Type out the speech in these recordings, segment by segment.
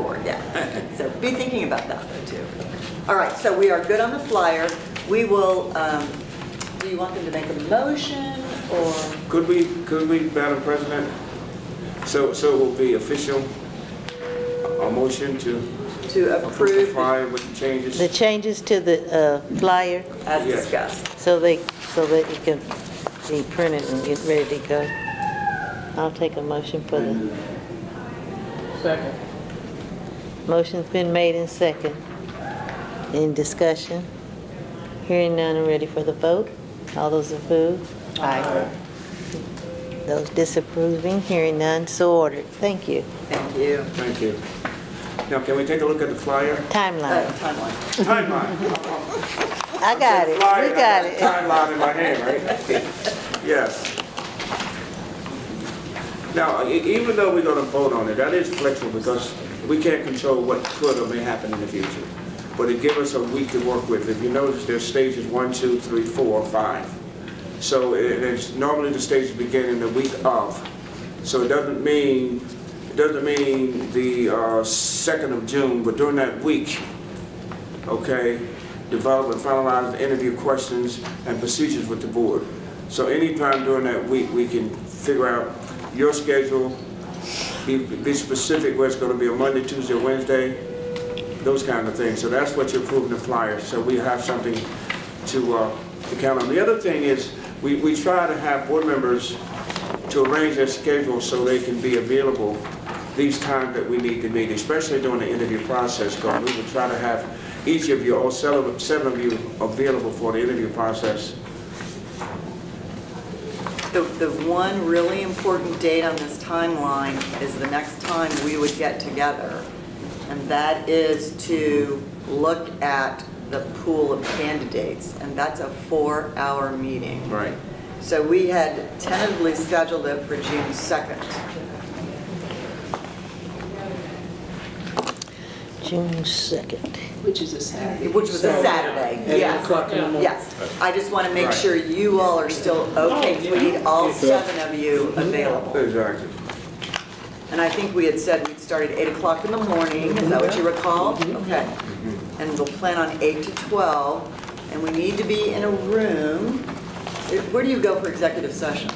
So be thinking about that though too. All right, so we are good on the flyer. We will, um, do you want them to make a motion or? Could we, could we, Madam President, so, so it will be official, a motion to to approve approve the flyer with changes? The changes to the uh, flyer, as Yes. discussed. so they, so that it can be printed and get ready to go. I'll take a motion for the, Second. motion's been made in second. In discussion? Hearing none, and ready for the vote? All those approve? Aye. Those disapproving, hearing none, so ordered. Thank you. Thank you. Thank you. Now, can we take a look at the flyer? Uh, Timeline. Timeline. Timeline. I got it, Flyer, we got I it. Timeline in my hand, right? Yes. Now, e- even though we're gonna vote on it, that is flexible because we can't control what could or may happen in the future. But it gives us a week to work with. If you notice, there's stages one, two, three, four, five. So it- it's normally the stages begin in the week of. So it doesn't mean, it doesn't mean the uh, second of June, but during that week, okay, develop and finalize the interview questions and procedures with the board. So anytime during that week, we can figure out your schedule, be, be specific where it's gonna be a Monday, Tuesday, Wednesday, those kind of things. So that's what you're approving the flyer, so we have something to, uh, to count on. The other thing is, we, we try to have board members to arrange their schedule so they can be available these times that we need to meet, especially during the interview process, because we will try to have each of you, all seven seven of you, available for the interview process. The, the one really important date on this timeline is the next time we would get together. And that is to look at the pool of candidates. And that's a four-hour meeting. Right. So we had tentatively scheduled it for June 2nd. June 2nd. Which is a Saturday. Which was a Saturday, At eight yes. o'clock in the morning. Yes, I just want to make Right. sure you all are still okay, 'cause we need all seven of you available. Exactly. And I think we had said we'd start at 8 o'clock in the morning, is that what you recall? Mm-hmm. Okay. And we'll plan on 8 to 12, and we need to be in a room. It- Where do you go for executive session?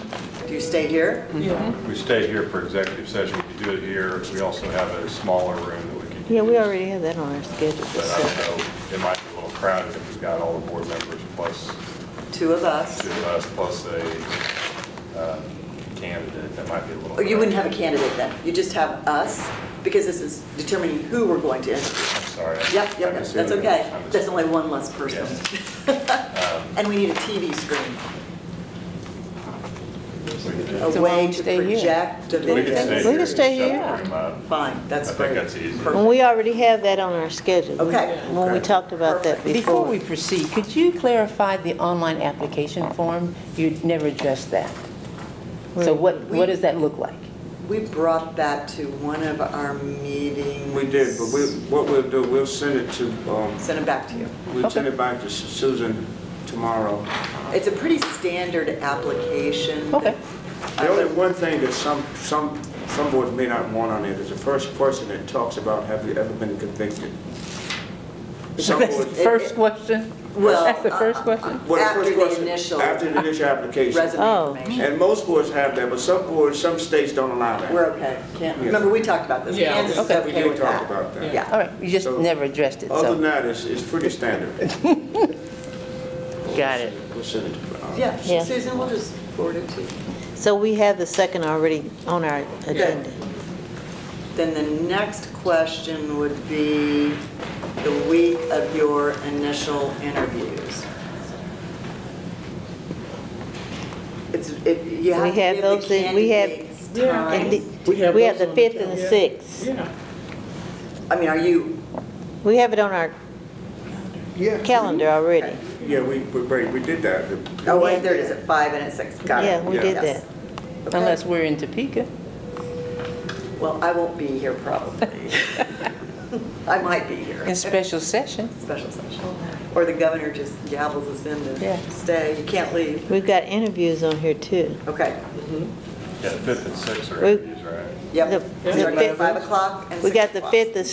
Do you stay here? Mm-hmm. We stay here for executive session, we can do it here, we also have a smaller room that we can. Yeah, we use, already have that on our schedule. But I don't know, it might be a little crowded if we've got all the board members plus Two of us. two of us, plus a um, candidate, that might be a little. Oh, You wouldn't have a candidate then, you just have us, because this is determining who we're going to interview. I'm sorry. Yep, I'm yep, that's assuming- okay. I'm That's assuming. only one less person. Um, And we need a TV screen, a So why way don't to we stay here? project the We could stay video. here. We could stay shut the here. room up. Fine, that's I think great. that's easy. Perfect. And we already have that on our schedule. Okay. When we talked about that Perfect. before. Before we proceed, could you clarify the online application form? You never addressed that. So what, what does that look like? We brought that to one of our meetings. We did, but we, what we'll do, we'll send it to, um, Send it back to you. we'll send it back to Su- Susan tomorrow. It's a pretty standard application. Okay. The only one thing that some, some, some boards may not want on it is the first person that talks about, have you ever been convicted? Some That's the boards- first question? Well, That's the first question? Well, the After first the question- initial- After the initial application. Resume Oh. information. And most boards have that, but some boards, some states don't allow that. We're okay. Can't, Yeah. remember, we talked about this. Yeah. Kansas is Okay. We okay did with talk that. about that. Yeah. All right, you just So- never addressed it, Other than so, that, it's, it's pretty standard. got it. We'll send it to, uh, Yeah, Yeah. Susan, we'll just forward it to you. So we have the second already on our agenda. Then the next question would be the week of your initial interviews. It's, it, you We have to have give the those in- we have- candidates Yeah. And the- time. We have we have those the on fifth and the agenda. sixth. Yeah. I mean, are you, We have it on our Yeah, calendar already. yeah, we, we, we we did that. oh, wait, there it is, at five and at six, got it. Yeah, we Yeah. did Yes. that. Okay. Unless we're in Topeka. Well, I won't be here probably. I might be here. In special session. Special session. Or the governor just gavels us in Yeah. to stay, you can't leave. We've got interviews on here too. Okay, Yeah, the fifth and sixth are We- interviews, right? yep. The- Starting the at fifth- Five o'clock and We six got the o'clock. fifth, the